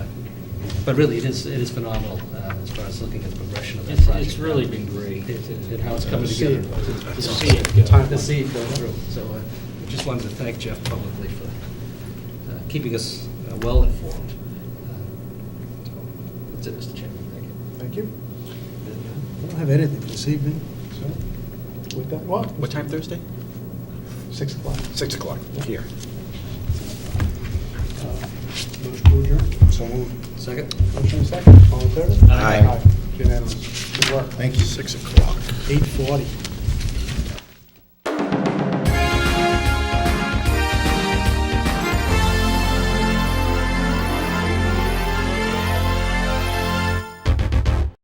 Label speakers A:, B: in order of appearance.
A: But really, it is, it is phenomenal uh, as far as looking at the progression of that
B: It's,
A: project.
B: it's really been great.
A: It- it- And how it's coming together.
B: To see it go.
A: Time to see it go through. So I just wanted to thank Jeff publicly for uh, keeping us uh, well informed. Uh, so That's it, Mr. Chairman. Thank you.
C: Thank you. I don't have anything this evening, so with that, what,
D: What time Thursday?
C: 6 o'clock?
D: Six o'clock, here.
C: Uh, Motion to adjourn? So moved.
A: Second?
C: Motion and second, all in favor?
D: Aye.
C: Unanimous. Good work.
D: Thank you. Six o'clock.
C: 8:40.